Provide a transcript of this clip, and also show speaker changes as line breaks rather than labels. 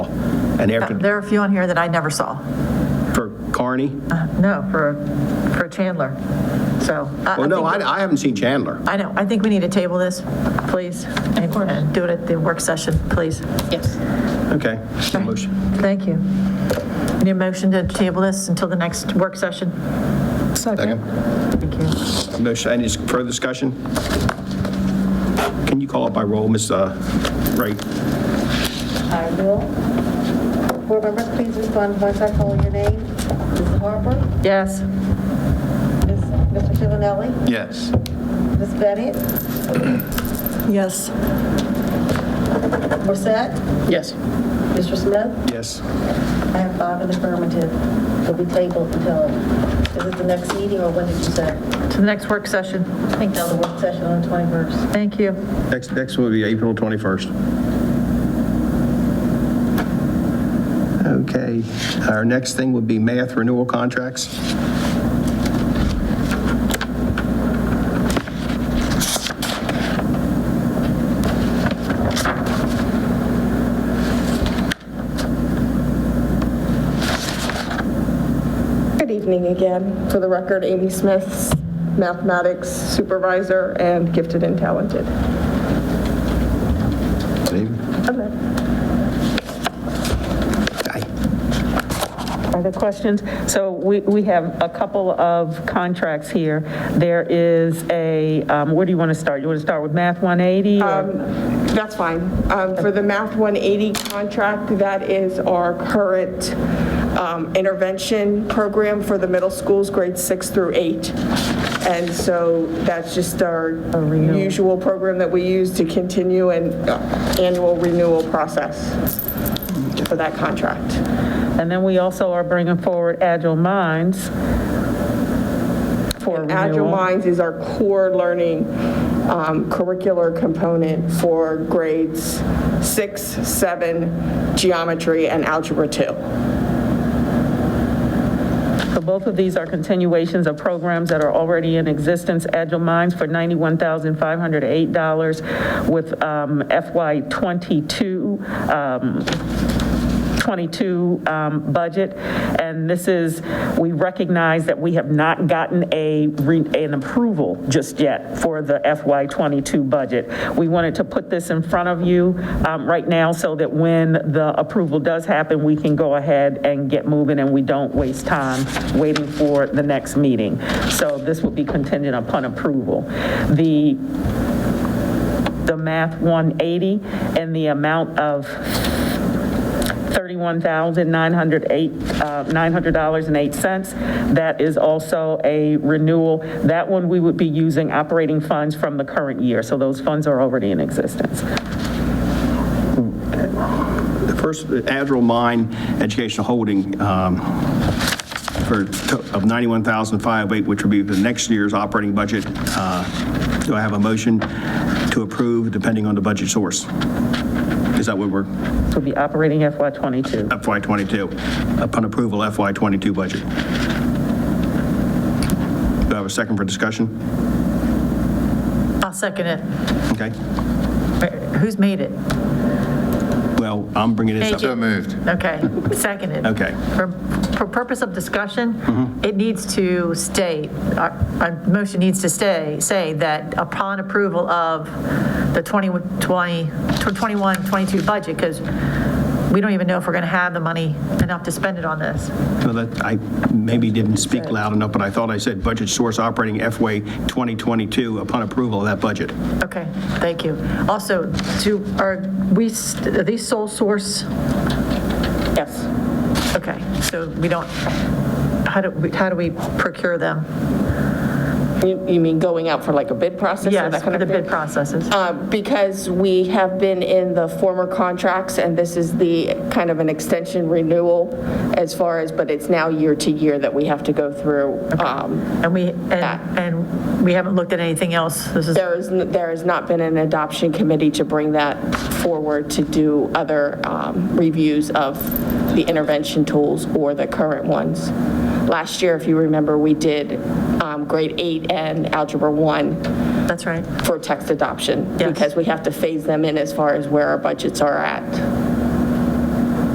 And after,
Uh, There are a few on here that I never saw.
for Carney?
Uh, No, for, for Chandler. So. I- I
Well, no,
think- Uh,
I, I haven't seen Chandler.
I know. I think we need to table this, please. Of
course.
Do it at the work session, please.
Yes.
Okay. Motion.
Thank you. Need a motion to table this until the next work session?
Second.
Thank you.
Motion, any further discussion? Can you call it by roll, Ms. uh, Wright?
I will. Board members, please respond once I call your name. Ms. Harper,
Yes.
Ms. Mr. Chivinelli,
Yes.
Ms. Bennett,
Yes.
Morset,
Yes.
Mr. Smith.
Yes.
I have five in affirmative. It'll be tabled until, is it the next meeting or when did you say?
To the next work session. Thank
Now the work session on the 21st.
Thank you.
Next, next will be April 21st. Okay, our next thing would be math renewal contracts.
Good evening again. For the record, Amy Smith, mathematics supervisor and gifted and talented.
Aye.
Other questions? So we, we have a couple of contracts here. There is a, um, where do you want to start? You want to start with Math 180?
Um,
or-
That's fine. Um, For the Math 180 contract, that is our current um, intervention program for the middle schools, grades six through eight. And so that's just our usual program that we use to continue an uh, annual renewal process for that contract.
And then we also are bringing forward Agile Minds for
And Agile
renewal.
Minds is our core learning um, curricular component for grades six, seven, geometry, and algebra two.
So both of these are continuations of programs that are already in existence. Agile Minds for $91,508 with um, FY '22 um, 22 um, budget, and this is, we recognize that we have not gotten a, re- an approval just yet for the FY '22 budget. We wanted to put this in front of you um, right now so that when the approval does happen, we can go ahead and get moving and we don't waste time waiting for the next meeting. So this will be contingent upon approval. The the math 180 and the amount of uh, $31,908.08. That is also a renewal. That one, we would be using operating funds from the current year, so those funds are already in existence.
The first, Adderall Mine Educational Holding um, for, to- of 91,508, which would be the next year's operating budget. Uh, Do I have a motion to approve depending on the budget source? Is that what we're,
This will be operating FY22.
FY '22, upon approval FY '22 budget? Do I have a second for discussion?
I'll second it.
Okay,
Who's made it?
well, I'm bringing this up.
Thank you.
So moved.
Okay, seconded.
Okay.
For, for purpose of discussion, it needs to state, our, our motion needs to stay, say that upon approval of the 2020, 21, 22 budget, because we don't even know if we're going to have the money enough to spend it on this.
Well, that, I maybe didn't speak loud enough, but I thought I said budget source operating FY 2022 upon approval of that budget.
Okay, thank you. Also, do, are we, s- are these sole source?
Yes.
Okay, so we don't, how do, we how do we procure them?
You you mean going out for like a bid process? or
Yes,
that
for
kind
the
of thing?
bid processes.
Uh, Because we have been in the former contracts, and this is the kind of an extension renewal as far as, but it's now year to year that we have to go through. Um,
And we, and,
That.
and we haven't looked at anything else. This is,
There is, n- there has not been an adoption committee to bring that forward to do other um, reviews of the intervention tools or the current ones. Last year, if you remember, we did um, grade eight and algebra one
that's right.
for text adoption
Yes.
because we have to phase them in as far as where our budgets are at.